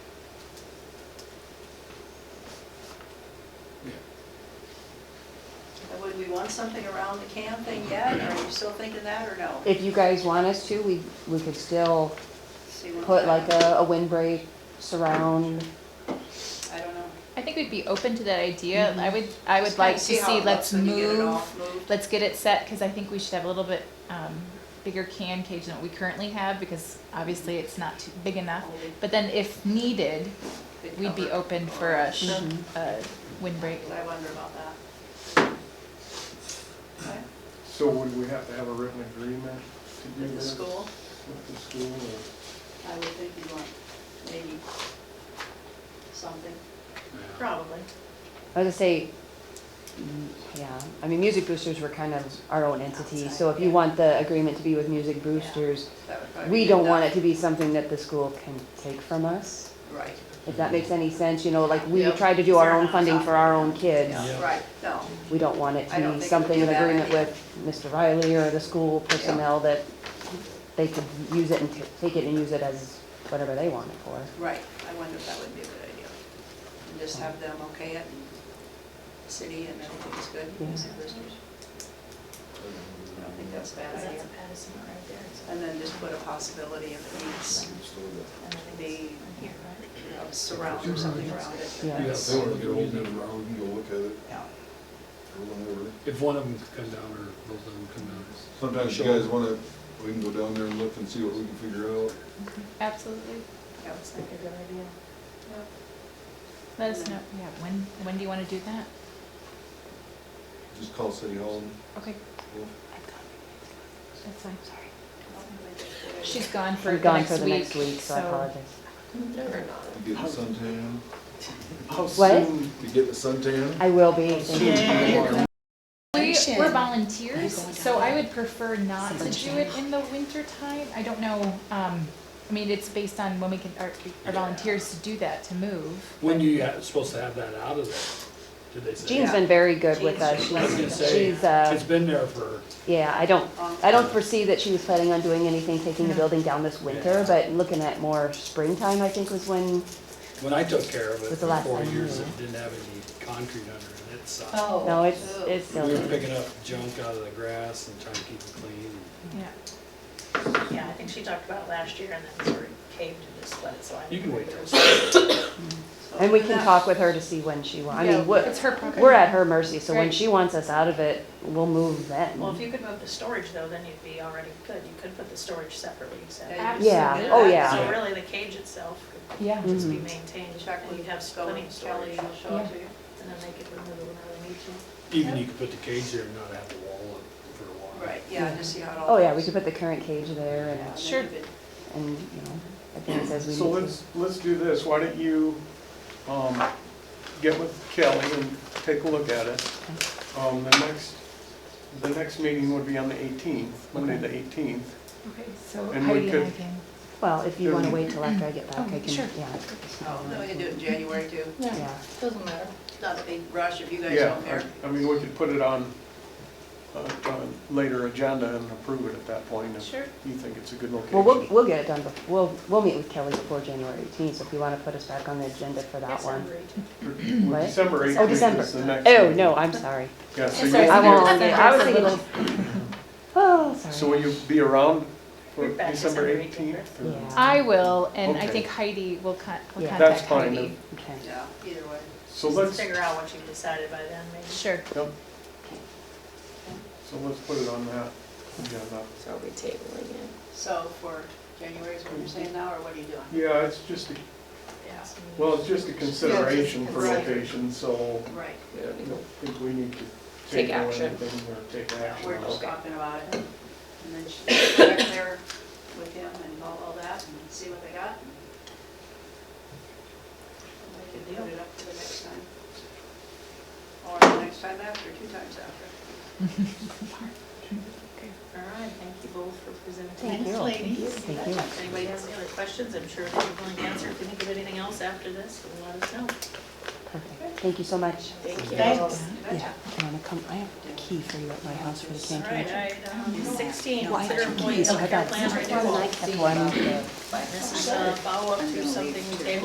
And would we want something around the can thing yet? Are you still thinking that or no? If you guys want us to, we, we could still See what- put like a, a windbreak surround. I don't know. I think we'd be open to that idea. I would, I would Mm-hmm. Just like kinda to how see, it let's looks when you get it move, all moved. let's get it set, because I think we should have a little bit, um, bigger can cage than what we currently have, because obviously it's not too big enough. But then if needed, Big we'd be cover. open for a, sh- Mhm. a windbreak. I wonder about that. Okay, So would we have to have a written agreement to do With the this? school, With the school, or- I would think you want maybe something, probably. I was gonna say, mm, yeah, I mean, Music Boosters were kind of our own entity, so if you want the agreement to be with Music Boosters, That would probably we be don't done. want it to be something that the school can take from us, Right, if that makes any sense, you know, like, we Yep. try to do our own Fair funding enough. for our own kids. Yeah. right, no, We don't want it I don't to be think it something would in be a bad agreement idea. with Mr. Riley or the school personnel that they could use it and t- take it and use it as whatever they want it for. right, I wonder if that would be a good idea. And just have them okay it, and city and everything's good, Yeah. music visitors. I don't think that's a bad idea. Addison right there. It's- And then just put a possibility of it needs and I think the, it's on here, right? of surround or something around it. Yeah. Yeah, that's- they wanna get old and around and go look at it, Yeah. If one of them could come down or both of them come down. Sometimes you guys wanna, we can go down there and look and see what we can figure out. Absolutely. Yeah. It's like a good idea. Let us know, yeah, when, when do you want to do that? Just call City Hall Okay, and that's fine, sorry. She's She's gone for We're the gone for next the next week, so I so. apologize. get a suntan. How What? soon, You getting a suntan? I will be, how thank you. soon do you want it? We, Action. we're volunteers, so I would prefer not to Something do it in the winter time. I don't know, um, I mean, it's based on when we can, our, our volunteers to do that, to move. When do you, ha- supposed to have that out of there? Did they say? Jean's been very good with Jean's us. been I was gonna She's, say, she's, uh, It's been there for, yeah, I don't, um, I don't foresee that she was planning on doing anything, taking the No. building down this winter, Yeah. but looking at more springtime, I think was when, when I took care of it, Was the last for four time Oh, you years, were it didn't have any concrete under it, it sucked. oh, no, it's, it's still. We were picking up junk out of the grass and trying to keep it clean. Yeah. Yeah, I think she talked about it last year and then sort of caved to just let it slide. You can wait till oh, And we can talk with her to see when she wants, I Yeah, mean, what, It's her property. We're at her mercy, so when Right. she wants us out of it, we'll move then. Well, if you could move the storage though, then you'd be already good. You could put the storage separately, so. Yeah, Absolutely. Yeah, oh yeah. So really the cage itself could Yeah, just be Mm-hmm. Mhm. maintained. Check and with you'd have Kelly, plenty of Kelly, storage. she'll show it to you. And then they could remove it whenever they need to. Even you could put the cage there and not have the wall up for a while. Right, yeah, just see how it all. Oh yeah, we goes. could put the current cage there Yeah, and and, then Sure. you could- and, you know, I think it says we So need to. let's, let's do this, why don't you, um, get with Kelly and take a look at it. Um, the next, the next meeting would be on the eighteenth, Monday the eighteenth. okay, so And we Heidi and I could- can, Well, if you wanna Mm. wait till after I get back, I Okay, can, sure. yeah. Oh, no, we can do it in January too. Yeah, Doesn't matter. It's not a big rush if you guys Yeah, don't care. I- I mean, we could put it on, uh, on later agenda and approve it at that point if Sure. you think it's a good location. well, we'll, we'll get it done, bef- we'll, we'll meet with Kelly before January eighteenth, so if you wanna put us back on the agenda for that one. Well, What? December Oh, 18th December. is the next. Oh, meeting. no, I'm sorry. Yeah, so Sorry, I December. you, won't, I was December's a thinking, oh, so sorry. will you be around for We're back December December 18th, 18th? or- Yeah. I will, and I Okay. think Heidi will con, will Yeah. contact That's fine, Heidi. Okay. Yeah, either way. So Let's let's, figure out what you've decided by then, maybe. Sure, yep. So let's put it on that agenda. So are we tabling it? So for January is what you're saying now, or what are you doing? Yeah, it's just, a Yeah. well, it's just a consideration for Right. location, so Right, We I don't need don't think we need to Take take on action. anything or take action. we're on just it. talking about it. And then she'll go back there with him and all, all that and see what they got. And They can put it up to the next time. Or the next time after, two times after. All right, thank you both for presenting. Thank you. Thank you. If anybody has any other questions, I'm sure they're going to answer. If you think of anything else after this, you let us know. Perfect. Thank you so much. Thank Thanks. Yeah, I wanna come, I have a key for you at my house for the All canteen. right, item um, sixteen, Well, I consider have two employee keys, so Oh, I health care got plan one, and renewal. I kept one. This is a follow-up to something we came